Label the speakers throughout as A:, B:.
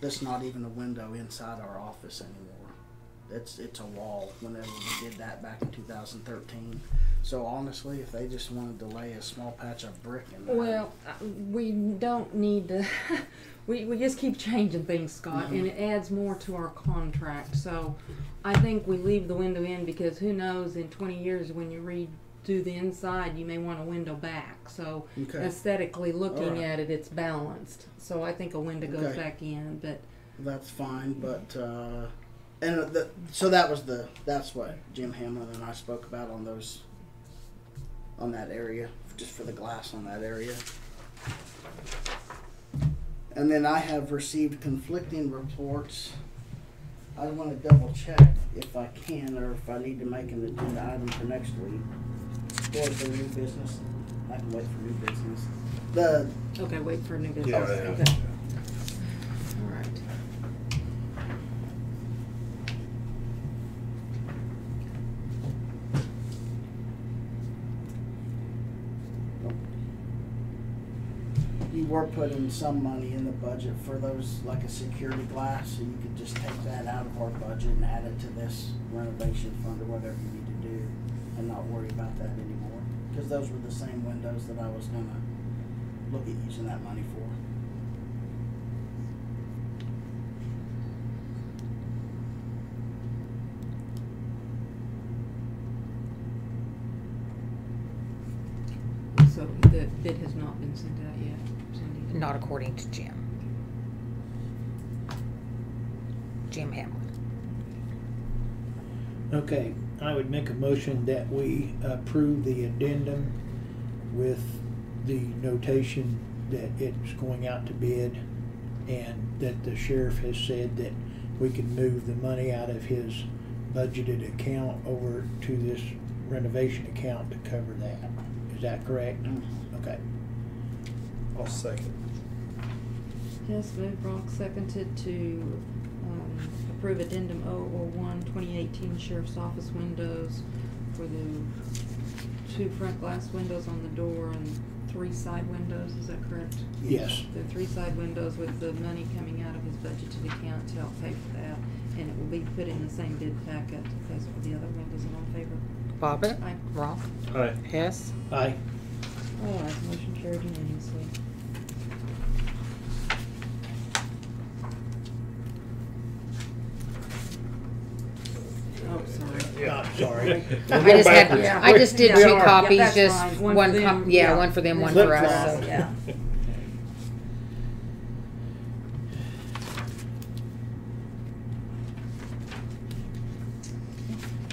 A: That's not even a window inside our office anymore. It's it's a wall. Whenever we did that back in 2013. So honestly, if they just wanted to lay a small patch of brick in there,
B: Well, I- we don't need to, we, we just keep changing things, Scott, and it adds more to our contract, so I think we leave the window in because who knows, in twenty years, when you redo the inside, you may want a window back, so
A: okay,
B: aesthetically looking
A: Alright.
B: at it, it's balanced, so I think a window goes
A: Okay.
B: back in, but
A: that's fine. But uh, and the, so that was the that's what Jim Hamlin and I spoke about on those on that area, just for the glass on that area. And then I have received conflicting reports. I want to double check if I can or if I need to make an agenda item for next week. Or for new business. I can wait for new business. The
B: Okay, wait for new business.
C: Yeah,
B: Okay.
C: yeah.
B: All right.
A: You were putting some money in the budget for those, like a security glass, so you could just take that out of our budget and add it to this renovation fund or whatever you need to do and not worry about that anymore. Cause those were the same windows that I was gonna look at using that money for.
B: So the bid has not been sent out yet, Cindy?
D: Not according to Jim. Jim Hamlin.
E: Okay, I would make a motion that we approve the addendum with the notation that it's going out to bid and that the sheriff has said that we can move the money out of his budgeted account over to this renovation account to cover that. Is that correct?
D: Mm-hmm.
E: Okay.
C: I'll second.
B: Yes, moved Ronk, seconded to um, approve addendum 001 2018 sheriff's office windows for the two front glass windows on the door and three side windows, is that correct?
E: Yes.
B: The three side windows with the money coming out of his budgeted account to help pay for that, and it will be put in the same bid packet as for the other windows, all in favor?
D: Bobbit,
B: Aye.
D: Ronk,
C: Aye.
D: Hess,
E: Aye.
B: All ayes, motion carried unanimously. Oh, sorry.
E: Yeah. Ah, sorry.
C: We're
D: I
C: going
D: just had,
C: backwards.
B: Yeah.
D: I just did
B: We
D: two
B: are.
D: copies,
B: Yeah, that's
D: just
B: fine. One for
D: one,
B: them,
D: com- yeah,
B: yeah.
D: one for them, one
E: Flip
D: for us,
E: flop.
D: so.
B: Yeah.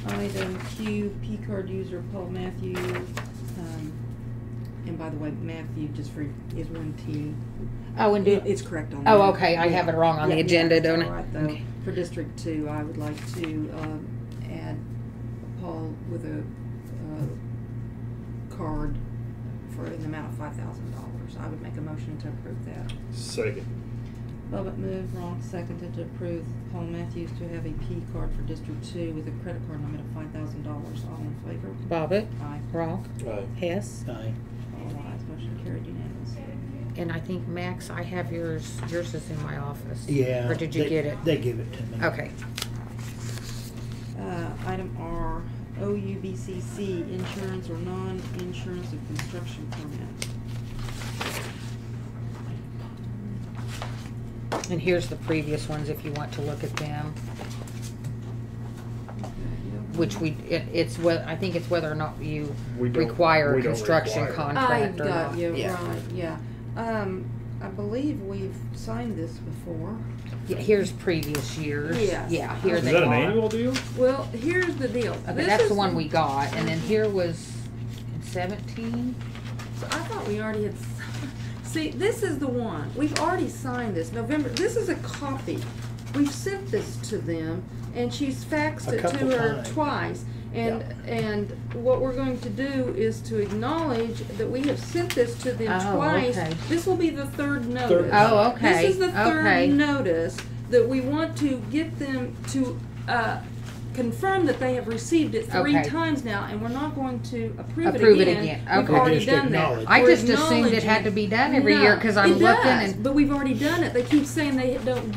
B: Item Q, P card user Paul Matthew, um, and by the way, Matthew just for, is one T.
D: Oh, and do,
B: It- It's correct on that.
D: oh, okay, I have it wrong on the
B: Yeah, yeah,
D: agenda,
B: that's
D: don't
B: all
D: I?
B: right, though.
D: Okay.
B: For District Two, I would like to, um, add Paul with a, uh, card for an amount of five thousand dollars. I would make a motion to approve that.
C: Second.
B: Bobbit moved, Ronk seconded to approve Paul Matthews to have a P card for District Two with a credit card limit of five thousand dollars. All in favor?
D: Bobbit,
B: Aye.
D: Ronk,
C: Aye.
D: Hess,
E: Aye.
B: All ayes, motion carried unanimously.
D: and I think Max, I have yours, yours is in my office.
E: Yeah.
D: Or did you
E: they-
D: get it?
E: They give it to me.
D: Okay,
B: Uh, item R, OUBCC, insurance or non-insurance of construction permit.
D: and here's the previous ones if you want to look at them, which we, it, it's what, I think it's whether or not you
C: We don't-
D: require
C: we
D: a
C: don't
D: construction
C: require
B: I
C: it.
D: contract or
B: got
D: not.
B: you,
E: Yeah.
B: right, yeah. Um, I believe we've signed this before.
D: Yeah, here's previous years.
B: Yes.
D: Yeah, here
C: Is
D: they
C: that
D: are.
C: an annual deal?
B: Well, here's the deal.
D: Okay,
B: This
D: that's the
B: is-
D: one we got, and then here was in seventeen.
B: So I thought we already had, s- see, this is the one, we've already signed this, November, this is a copy. We've sent this to them, and she's faxed
E: A
B: it
E: couple
B: to her
E: times.
B: twice. And, and what we're going to do is to acknowledge that we have sent this to them
D: Oh,
B: twice.
D: okay.
B: This will be the third notice.
D: Oh, okay.
B: This is the
D: okay.
B: third notice that we want to get them to, uh, confirm that they have received it three
D: Okay.
B: times now, and we're not going to approve it again.
D: Approve it again.
B: We've
D: Okay.
B: already
E: Just
B: done that.
E: acknowledge.
D: I
B: We're
D: just assumed it had to be done every
B: No,
D: year because I'm
B: it
D: looking
B: does,
D: and
B: But we've already done it. They keep saying they don't